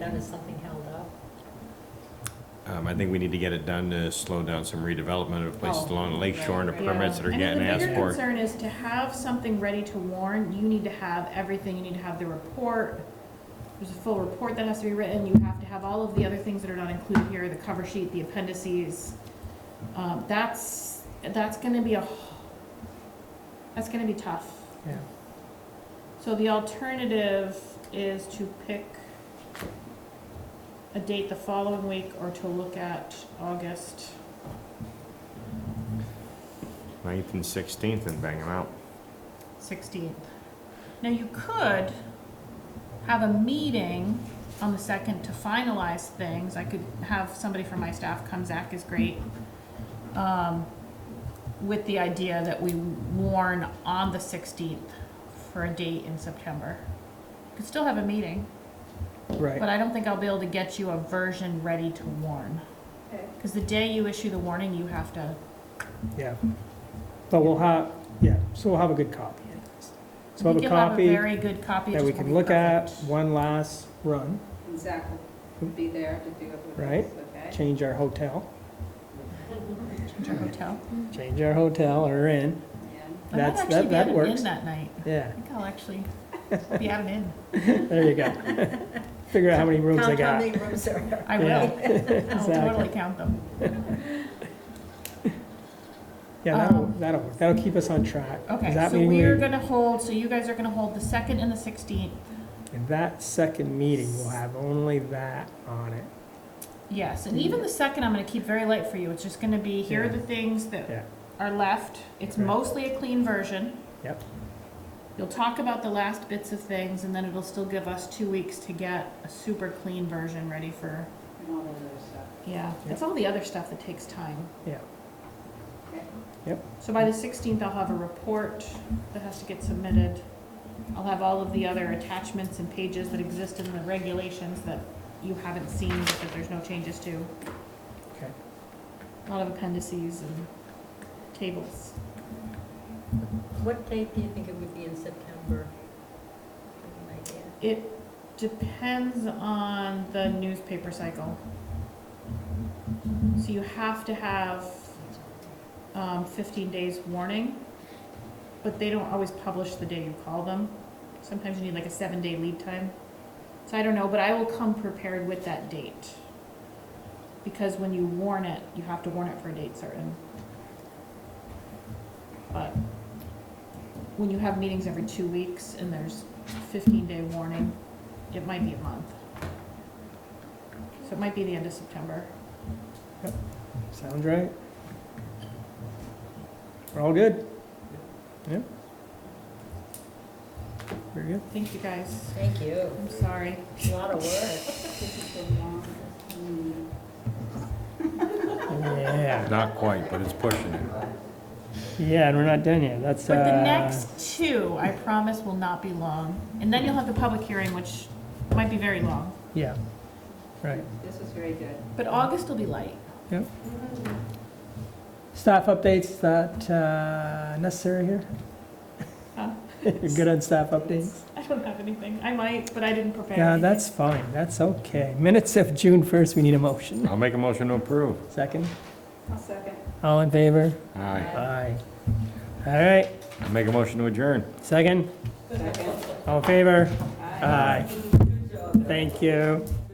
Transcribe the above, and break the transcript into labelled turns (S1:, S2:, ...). S1: That is something held up.
S2: Um, I think we need to get it done to slow down some redevelopment of places
S1: Oh,
S2: along the lake shore and the
S1: right,
S3: right.
S2: permits that are
S3: And then
S2: getting
S3: the
S2: asked
S3: bigger
S2: for.
S3: concern is to have something ready to warn, you need to have everything, you need to have the report, there's a full report that has to be written, you have to have all of the other things that are not included here, the cover sheet, the appendices. Um, that's, that's gonna be a, that's gonna be tough.
S4: Yeah.
S3: So the alternative is to pick a date the following week or to look at August.
S2: Ninth and sixteenth and bang them out.
S3: 16th. Now, you could have a meeting on the 2nd to finalize things. I could have somebody from my staff come, Zach is great, um, with the idea that we warn on the 16th for a date in September. Could still have a meeting, but
S4: Right,
S3: I don't think I'll be able to get you a version ready to warn.
S1: Okay.
S3: Because the day you issue the warning, you have to,
S4: yeah. But we'll have, yeah, so we'll have a good copy. So
S3: I
S4: we'll
S3: think
S4: have a
S3: you'll have a
S4: copy
S3: very good copy. it
S4: that we
S3: just won't
S4: can
S3: be
S4: look at,
S3: perfect.
S4: one last run,
S5: And Zach will be there to do it with
S4: Right.
S5: us, okay?
S4: change our hotel,
S3: Change our hotel.
S4: change our hotel or inn,
S5: And
S3: I might
S4: That's-
S3: actually
S4: that-
S3: be
S4: that
S3: at an
S4: works.
S3: inn that night.
S4: yeah,
S3: I think I'll actually be at an inn.
S4: there you go. Figure out how many rooms I
S1: Count how
S4: got.
S1: many rooms are there.
S3: I
S4: Yeah,
S3: will. I'll totally count them.
S4: Yeah, that'll,
S3: Um,
S4: that'll, work. that'll keep us on track. Does
S3: Okay,
S4: that
S3: so
S4: mean
S3: we are gonna hold, so you guys are gonna hold the second and the sixteenth.
S4: in That second meeting, we'll have only that on it.
S3: Yes, and even the second, I'm gonna keep very light for you. It's just gonna be, here are
S4: Yeah.
S3: the things
S4: Yeah.
S3: that are left. It's
S4: Right.
S3: mostly a clean version.
S4: Yep.
S3: You'll talk about the last bits of things, and then it'll still give us two weeks to get a super clean version ready for,
S5: all of those stuff.
S3: yeah.
S4: Yep.
S3: It's all the other stuff that takes time.
S5: Okay.
S3: So by the sixteenth, I'll have a report that has to get submitted. I'll have all of the other attachments and pages that exist in the regulations that you haven't seen, but that there's no changes to.
S4: Okay.
S3: A lot of appendices and tables.
S1: What date do you think it would be in September? Any idea?
S3: It depends on the newspaper cycle. So you have to have, um, fifteen days warning, but they don't always publish the day you call them. Sometimes you need like a seven-day lead time. So I don't know, but I will come prepared with that date. Because when you warn it, you have to warn it for a date certain. But when you have meetings every two weeks and there's fifteen day warning, it might be a month. So it might be the end of September.
S4: Sounds right? We're all good? Yeah? Very good.
S3: Thank you guys.
S1: Thank you.
S3: I'm sorry.
S1: A lot of work.
S5: This is mm, the longest meeting.
S4: Yeah,
S2: Not quite, but it's pushing it.
S4: yeah, and we're not done yet, that's, uh.
S3: But the next two, I promise, will not be long. And then you'll have the public hearing, which might be very long.
S4: Yeah, right.
S5: This was very good.
S3: But August will be light.
S4: Staff updates, that uh, necessary here?
S3: Huh?
S4: You're good on staff updates?
S3: I don't have anything. I might, but I didn't prepare.
S4: Yeah,
S3: anything.
S4: that's fine, that's okay. Minutes of June 1st, we need a motion.
S2: I'll make a motion to approve.
S4: Second,
S5: I'll second.
S4: all in favor?
S2: Aye.
S4: Aye. All right,
S2: I'll make a motion to adjourn.
S4: second,
S5: Second.
S4: all in favor?
S5: Aye.
S4: Aye. Thank you.